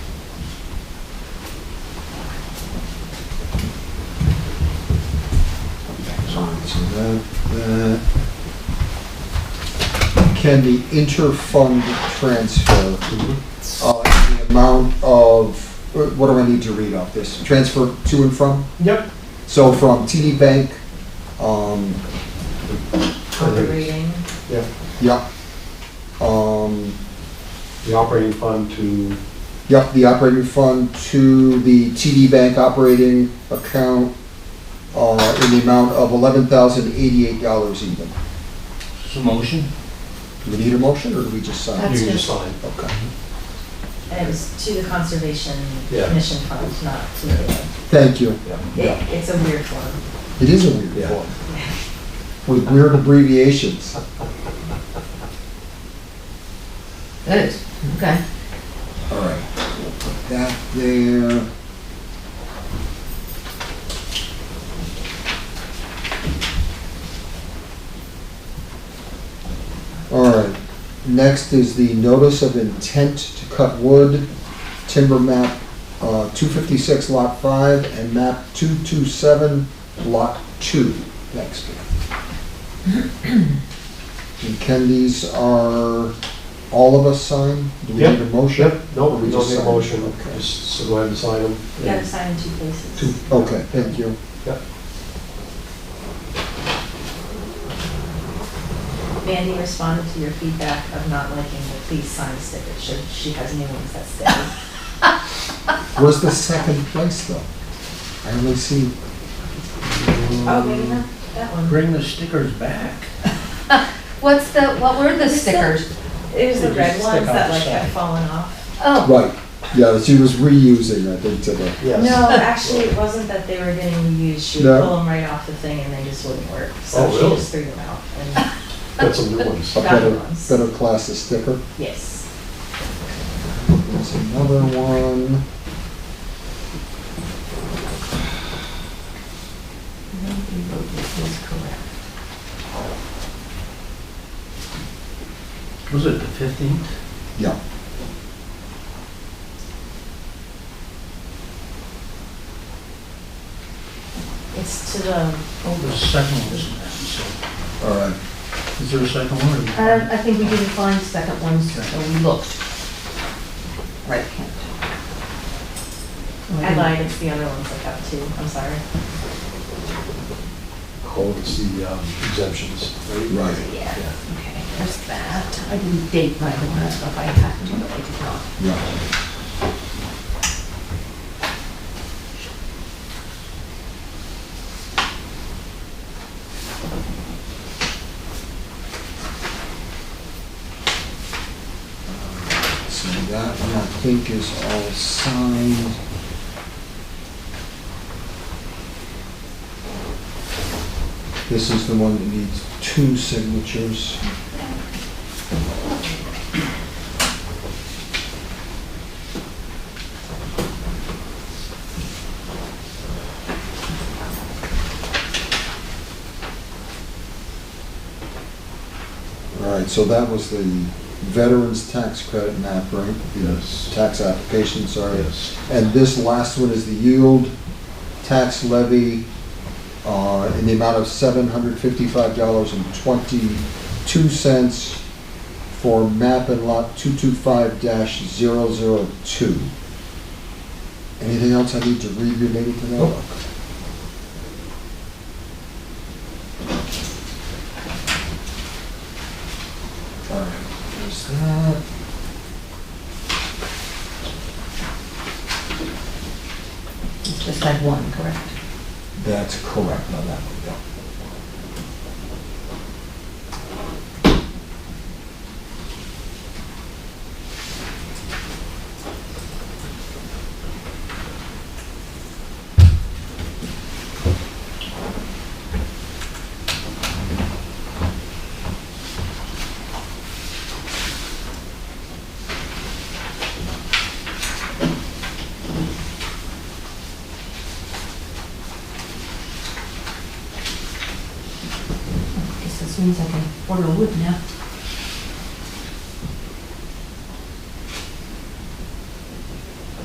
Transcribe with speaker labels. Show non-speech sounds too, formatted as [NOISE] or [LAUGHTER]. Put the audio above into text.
Speaker 1: question. Uh, uh, Can the inter-fund transfer,
Speaker 2: Mm-hmm.
Speaker 1: uh, the amount of, uh, what do I need to read off this? Transfer to and from?
Speaker 2: Yep.
Speaker 1: So from TD Bank, um,
Speaker 3: the reading.
Speaker 1: yeah, um,
Speaker 2: The operating fund to,
Speaker 1: Yep, the operating fund to the TD Bank operating account uh, in the amount of eleven thousand eighty-eight dollars even.
Speaker 4: So motion?
Speaker 1: Do we need a motion, or do we just sign?
Speaker 2: you
Speaker 3: That's
Speaker 2: can just
Speaker 3: just-
Speaker 2: sign.
Speaker 1: Okay,
Speaker 3: And it was to the Conservation
Speaker 2: Yeah.
Speaker 3: Commission Fund, not to the,
Speaker 1: thank you.
Speaker 3: it, it's a weird one.
Speaker 1: It is a weird
Speaker 2: Yeah.
Speaker 1: form. With weird abbreviations.
Speaker 5: Good, okay.
Speaker 1: All right, we'll put that there. All right, next is the notice of intent to cut wood, timber map uh, 256 lot 5 and map 227 lot 2. Next. And Ken, these are all of us sign? Do we need a
Speaker 2: Yep,
Speaker 1: motion?
Speaker 2: No, we don't need a motion,
Speaker 1: Okay.
Speaker 2: just so go ahead and sign them.
Speaker 3: You gotta sign in two places.
Speaker 1: Okay, thank you.
Speaker 3: Mandy responded to your feedback of not liking the please sign sticker, should, she has new ones that say.
Speaker 1: Where's the second place though? I only see,
Speaker 3: Oh, maybe not that one.
Speaker 4: Bring the stickers back.
Speaker 5: What's the, what were the
Speaker 3: What's that?
Speaker 5: stickers?
Speaker 3: It was
Speaker 4: They
Speaker 3: the red
Speaker 4: just
Speaker 3: ones
Speaker 4: stick out
Speaker 3: that
Speaker 4: the
Speaker 3: like
Speaker 4: side.
Speaker 3: had fallen off.
Speaker 5: Oh,
Speaker 1: right, yeah, she was reusing, I think, today.
Speaker 2: Yes.
Speaker 3: No, actually, it wasn't that they were getting reused, she would
Speaker 1: No.
Speaker 3: pull them right off the thing and they just wouldn't work.
Speaker 2: Oh,
Speaker 3: So she
Speaker 2: really?
Speaker 3: just threw them out
Speaker 4: [LAUGHS]
Speaker 3: and,
Speaker 2: Got some new ones.
Speaker 1: A
Speaker 3: Got
Speaker 1: better,
Speaker 3: ones.
Speaker 1: better class of sticker.
Speaker 3: yes.
Speaker 1: There's another one.
Speaker 3: Maybe vote is correct.
Speaker 4: Was it the fifteenth?
Speaker 1: Yeah.
Speaker 3: It's to the,
Speaker 4: Oh, the second one was that, so,
Speaker 1: All right.
Speaker 4: is there a second one? or-
Speaker 5: I don't, Um, I think we didn't find second ones, so we looked. Right, Kent.
Speaker 3: I lied, it's the other ones I got too, I'm sorry.
Speaker 2: Oh, it's the um, exemptions.
Speaker 1: Right,
Speaker 5: Yeah, okay, there's that. I didn't date my own stuff, I had to, but I did not.
Speaker 1: yeah. So that one I think is all signed. This is the one that needs two signatures. All right, so that was the veterans tax credit map, right?
Speaker 2: Yes.
Speaker 1: Tax application, sorry.
Speaker 2: Yes.
Speaker 1: And this last one is the yield tax levy uh, in the amount of $755.22 for map and lot 225-002. Anything else I need to read related to that? All right, there's that.
Speaker 5: It's Just had one, correct?
Speaker 1: That's correct on that one, yeah.
Speaker 5: Guess this means I can order wood now.